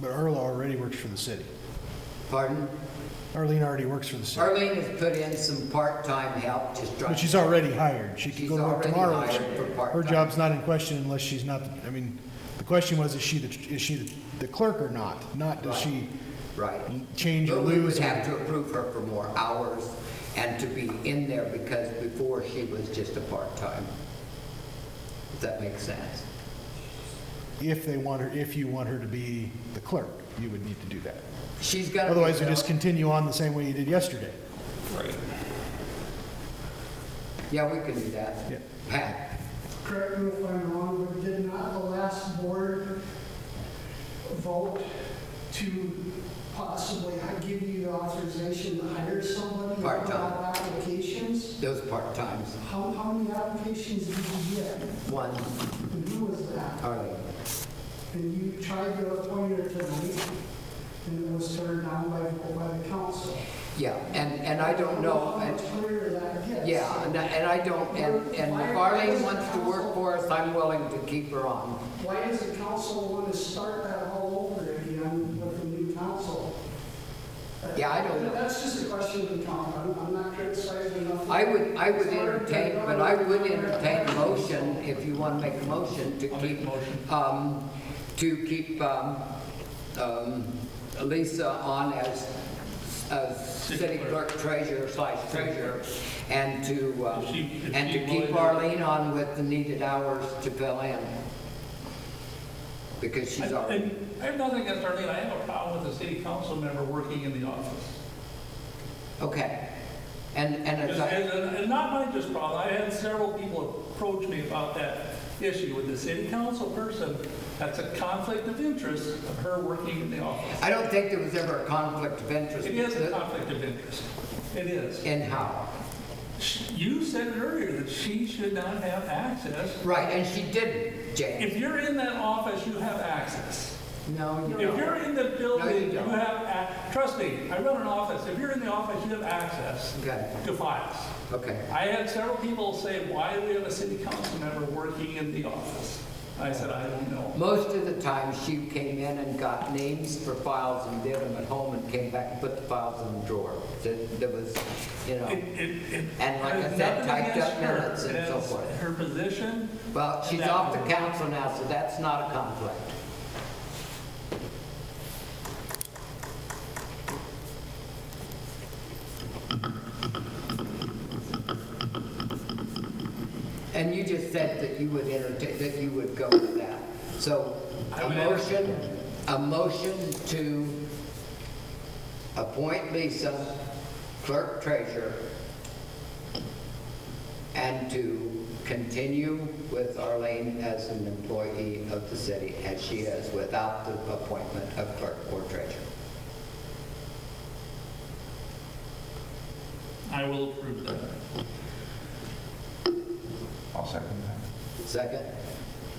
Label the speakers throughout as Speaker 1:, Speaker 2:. Speaker 1: But Erla already works for the city.
Speaker 2: Pardon?
Speaker 1: Arlene already works for the city.
Speaker 2: Arlene has put in some part-time help to try.
Speaker 1: But she's already hired. She could
Speaker 2: She's
Speaker 1: go to work
Speaker 2: already
Speaker 1: tomorrow.
Speaker 2: hired for
Speaker 1: Her
Speaker 2: part-time.
Speaker 1: job's not in question unless she's not, the- I mean, the question was, is she, the is she the clerk or not? Not does she
Speaker 2: Right.
Speaker 1: change or
Speaker 2: But we would
Speaker 1: lose?
Speaker 2: have to approve her for more hours and to be in there because before she was just a part-time. Does that make sense?
Speaker 1: If they want her, if you want her to be the clerk, you would need to do that.
Speaker 2: She's got.
Speaker 1: Otherwise, you just continue on the same way you did yesterday.
Speaker 3: Right.
Speaker 2: Yeah, we can do that.
Speaker 1: Yeah.
Speaker 2: Pat,
Speaker 4: correct me if I'm wrong, but did not the last board vote to possibly give you the authorization to hire somebody?
Speaker 2: Part-time.
Speaker 4: About Applications?
Speaker 2: those part-times,
Speaker 4: How, how many applications did you get?
Speaker 2: one,
Speaker 4: And who was that?
Speaker 2: Arlene.
Speaker 4: And you tried to appoint her tonight, and it was turned down by, by the council.
Speaker 2: Yeah, and, and I don't know,
Speaker 4: How
Speaker 2: and-
Speaker 4: much clearer that gets.
Speaker 2: yeah, and I- and I don't, and, and if Arlene wants to work for us, I'm willing to keep her on.
Speaker 4: Why does the council want to start that all over again with the new council?
Speaker 2: Yeah, I don't know.
Speaker 4: That's just a question of the council. I'm- I'm not criticizing enough.
Speaker 2: I would, I would entertain, but I would entertain a motion, if you want to make a motion, to
Speaker 3: I'll make a
Speaker 2: keep,
Speaker 3: motion.
Speaker 2: um, to keep, um, um, Lisa on as, as city clerk treasurer slash treasurer, and to, um,
Speaker 3: If she- if
Speaker 2: and
Speaker 3: she
Speaker 2: to keep
Speaker 3: wanted-
Speaker 2: Arlene on with the needed hours to fill in. Because she's
Speaker 3: I
Speaker 2: already,
Speaker 3: I have nothing against Arlene, I have a problem with a city council member working in the office.
Speaker 2: okay. And, and as
Speaker 3: And,
Speaker 2: I,
Speaker 3: and- and not my just problem, I had several people approach me about that issue with the city council person. That's a conflict of interest of her working in the office.
Speaker 2: I don't think there was ever a conflict of interest.
Speaker 3: It is a conflict of interest. It is.
Speaker 2: In how?
Speaker 3: Sh- You said earlier that she should not have access.
Speaker 2: Right, and she didn't, James.
Speaker 3: If you're in that office, you have access.
Speaker 2: No, you
Speaker 3: If
Speaker 2: don't.
Speaker 3: you're in the building, you
Speaker 2: don't.
Speaker 3: have, ac- trust me, I run an office. If you're in the office, you have access
Speaker 2: Okay,
Speaker 3: to files.
Speaker 2: okay.
Speaker 3: I had several people say, why do we have a city council member working in the office? I said, I don't know.
Speaker 2: Most of the time, she came in and got names for files and did them at home and came back and put the files in the drawer. There there was, you
Speaker 3: It-
Speaker 2: know,
Speaker 3: it- it-
Speaker 2: And like I
Speaker 3: there's
Speaker 2: said,
Speaker 3: nothing
Speaker 2: typed
Speaker 3: against
Speaker 2: up
Speaker 3: her.
Speaker 2: minutes and so
Speaker 3: It's
Speaker 2: forth.
Speaker 3: Her position,
Speaker 2: well, she's
Speaker 3: That-
Speaker 2: off the council now, so that's not a conflict. And you just said that you would entertain, that you would go with that. So
Speaker 3: I
Speaker 2: a
Speaker 3: would
Speaker 2: motion, a motion to appoint Lisa clerk treasurer and to continue with Arlene as an employee of the city as she is without the appointment of clerk or treasurer.
Speaker 3: I will approve that.
Speaker 5: I'll second that.
Speaker 2: Second?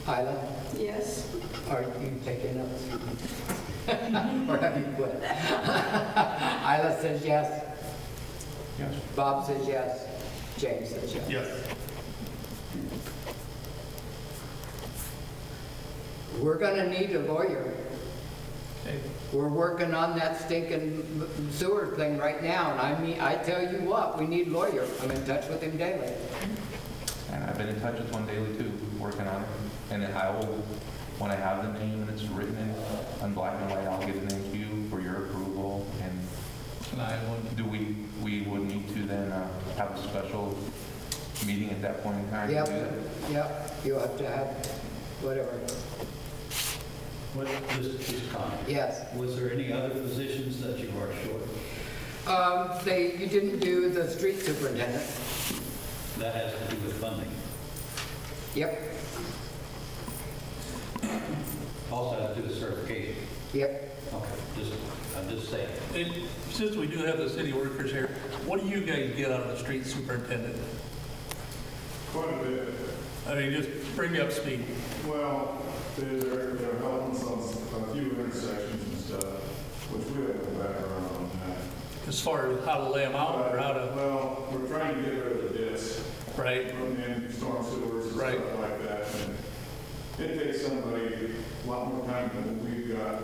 Speaker 2: Isla,
Speaker 6: Yes.
Speaker 2: are you taking notes? Or have you quit? Isla says yes.
Speaker 5: Yes.
Speaker 2: Bob says yes. James says yes.
Speaker 3: Yes.
Speaker 2: We're gonna need a lawyer.
Speaker 3: Okay.
Speaker 2: We're working on that stinking sewer thing right now, and I mean, I tell you what, we need a lawyer. I'm in touch with him daily.
Speaker 5: And I've been in touch with one daily too, working on it. And then I will, when I have the name and it's written in, on black and white, I'll give the name to you for your approval. And
Speaker 3: And I will
Speaker 5: do we, we would need to then uh, have a special meeting at that point in time? to
Speaker 2: Yep,
Speaker 5: do that?
Speaker 2: yep, you have to have, whatever,
Speaker 7: What, just, just comment.
Speaker 2: yes.
Speaker 7: Was there any other positions that you are short?
Speaker 2: Um, they, you didn't do the street superintendent,
Speaker 7: That has to do with funding.
Speaker 2: yep,
Speaker 7: Also has to do with certification.
Speaker 2: yep.
Speaker 7: Okay, just, I'm just saying.
Speaker 3: And Since we do have the city workers here, what do you guys get out of the street superintendent?
Speaker 8: Quite a bit.
Speaker 3: I mean, just bring me up to speed.
Speaker 8: Well, they're, they're helping some, a few intersections and stuff, which we have a background on that.
Speaker 3: as far as how to lay them out or how to,
Speaker 8: Well, we're trying to get rid of the discs
Speaker 3: right?
Speaker 8: from in storm sewers and
Speaker 3: Right.
Speaker 8: stuff like that. and It takes somebody a lot more time than we've got